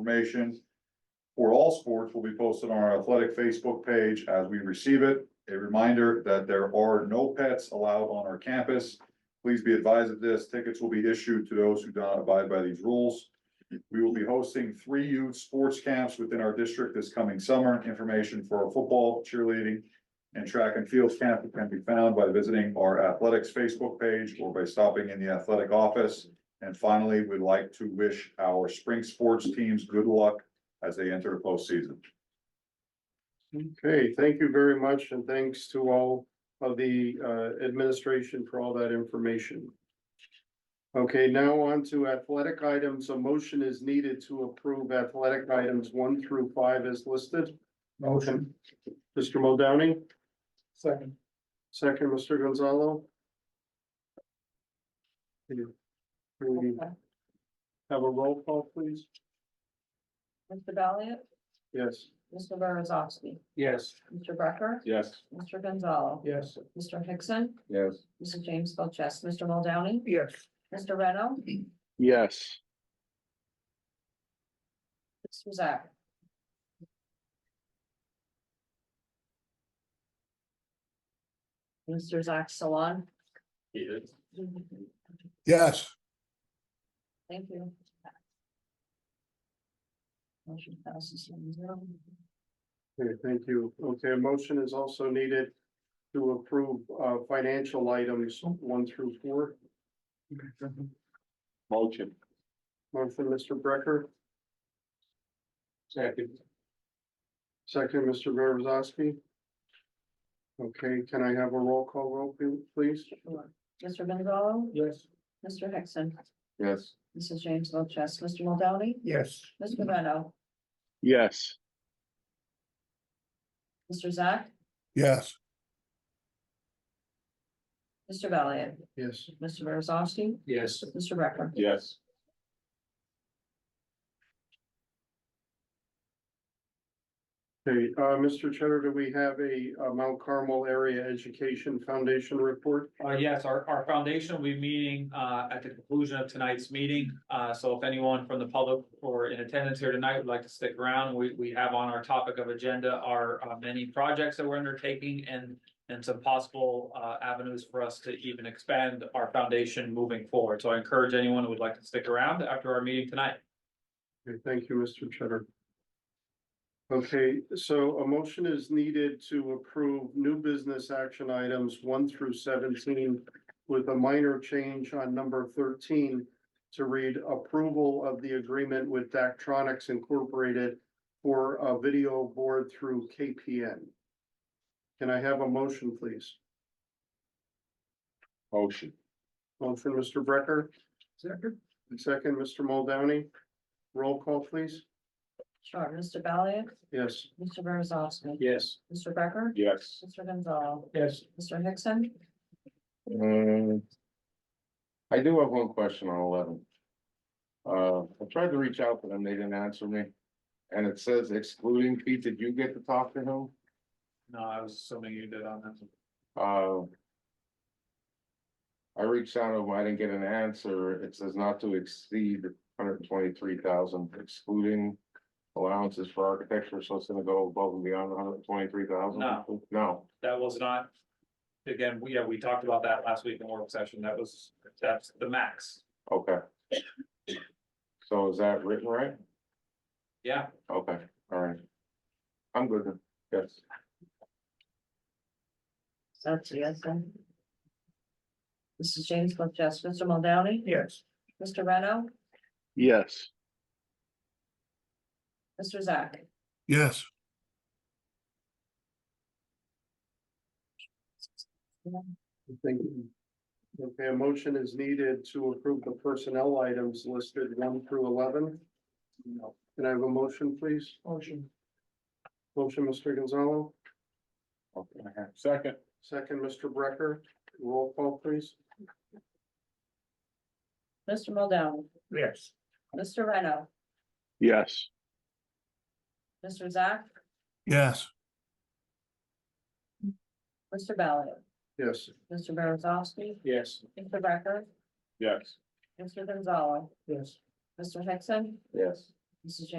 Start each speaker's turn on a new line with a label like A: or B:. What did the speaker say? A: information for all sports will be posted on our athletic Facebook page as we receive it. A reminder that there are no pets allowed on our campus. Please be advised of this. Tickets will be issued to those who do not abide by these rules. We will be hosting three youth sports camps within our district this coming summer. Information for our football, cheerleading, and track and field camp can be found by visiting our athletics Facebook page or by stopping in the athletic office. And finally, we'd like to wish our spring sports teams good luck as they enter the postseason.
B: Okay, thank you very much and thanks to all of the uh, administration for all that information. Okay, now on to athletic items. A motion is needed to approve athletic items one through five as listed.
C: Motion.
B: Mr. Muldowney,
C: Second.
B: second, Mr. Gonzalo. Can we Have a roll call, please?
D: Mr. Valiant,
B: Yes.
D: Mr. Beresowski,
C: Yes.
D: Mr. Becker,
A: Yes.
D: Mr. Gonzalo,
C: Yes.
D: Mr. Hickson,
A: Yes.
D: Mr. James Felches, Mr. Muldowney,
C: Yes.
D: Mr. Reno,
B: Yes.
D: Mr. Zach. Mr. Zach Salon.
E: Yes,
D: Thank you. Motion passes seven zero.
B: Okay, thank you. Okay, a motion is also needed to approve uh financial items one through four.
A: Motion.
B: Motion, Mr. Brecker,
C: Second.
B: second, Mr. Beresowski. Okay, can I have a roll call vote, pl- please?
D: Sure. Mr. Gonzalo,
C: Yes.
D: Mr. Hickson,
A: Yes.
D: Mrs. James Felches, Mr. Muldowney,
C: Yes.
D: Mr. Reno,
B: Yes.
D: Mr. Zach,
E: yes,
D: Mr. Valiant.
B: Yes.
D: Mr. Beresowski,
C: Yes.
D: Mr. Becker.
A: Yes.
B: Okay, uh, Mr. Cheddar, do we have a uh, Mount Carmel Area Education Foundation report?
F: Uh, yes, our, our foundation will be meeting, uh, at the conclusion of tonight's meeting. Uh, so if anyone from the public or in attendance here tonight would like to stick around, we, we have on our topic of agenda our, uh, many projects that we're undertaking and, and some possible, uh, avenues for us to even expand our foundation moving forward. So I encourage anyone who would like to stick around after our meeting tonight.
B: Okay, thank you, Mr. Cheddar. Okay, so a motion is needed to approve new business action items one through seventeen with a minor change on number thirteen to read approval of the agreement with Daktronics Incorporated for a video board through KPN. Can I have a motion, please?
A: Motion.
B: Motion, Mr. Brecker,
C: Second.
B: second, Mr. Muldowney. Roll call, please.
D: Sure, Mr. Valiant,
B: Yes.
D: Mr. Beresowski,
C: Yes.
D: Mr. Becker,
A: Yes.
D: Mr. Gonzalo,
C: Yes.
D: Mr. Hickson,
G: Um, I do have one question on eleven. Uh, I tried to reach out to them, they didn't answer me. And it says excluding Pete, did you get to talk to him?
F: No, I was assuming you did on that.
G: Uh. I reached out to him, I didn't get an answer. It says not to exceed hundred and twenty-three thousand excluding. Allowances for architecture, so it's gonna go above and beyond hundred and twenty-three thousand?
F: No.
G: No,
F: That was not, again, we, yeah, we talked about that last week in work session. That was, that's the max.
G: okay. So is that written right?
F: Yeah,
G: Okay, all right. I'm good then, yes.
D: so that's a yes then. Mrs. James Felches, Mr. Muldowney,
C: Yes.
D: Mr. Reno,
B: Yes.
D: Mr. Zach.
E: yes.
B: Thank you. Okay, a motion is needed to approve the personnel items listed one through eleven. Can I have a motion, please?
C: Motion.
B: Motion, Mr. Gonzalo,
G: Okay, second.
B: second, Mr. Brecker, roll call, please.
D: Mr. Muldowney,
C: Yes.
D: Mr. Reno,
G: Yes.
D: Mr. Zach,
E: Yes,
D: Mr. Valiant,
B: Yes.
D: Mr. Beresowski,
C: Yes.
D: Mr. Becker,
G: Yes.
D: Mr. Gonzalo,
C: Yes.
D: Mr. Hickson,
G: Yes.
D: Mrs. James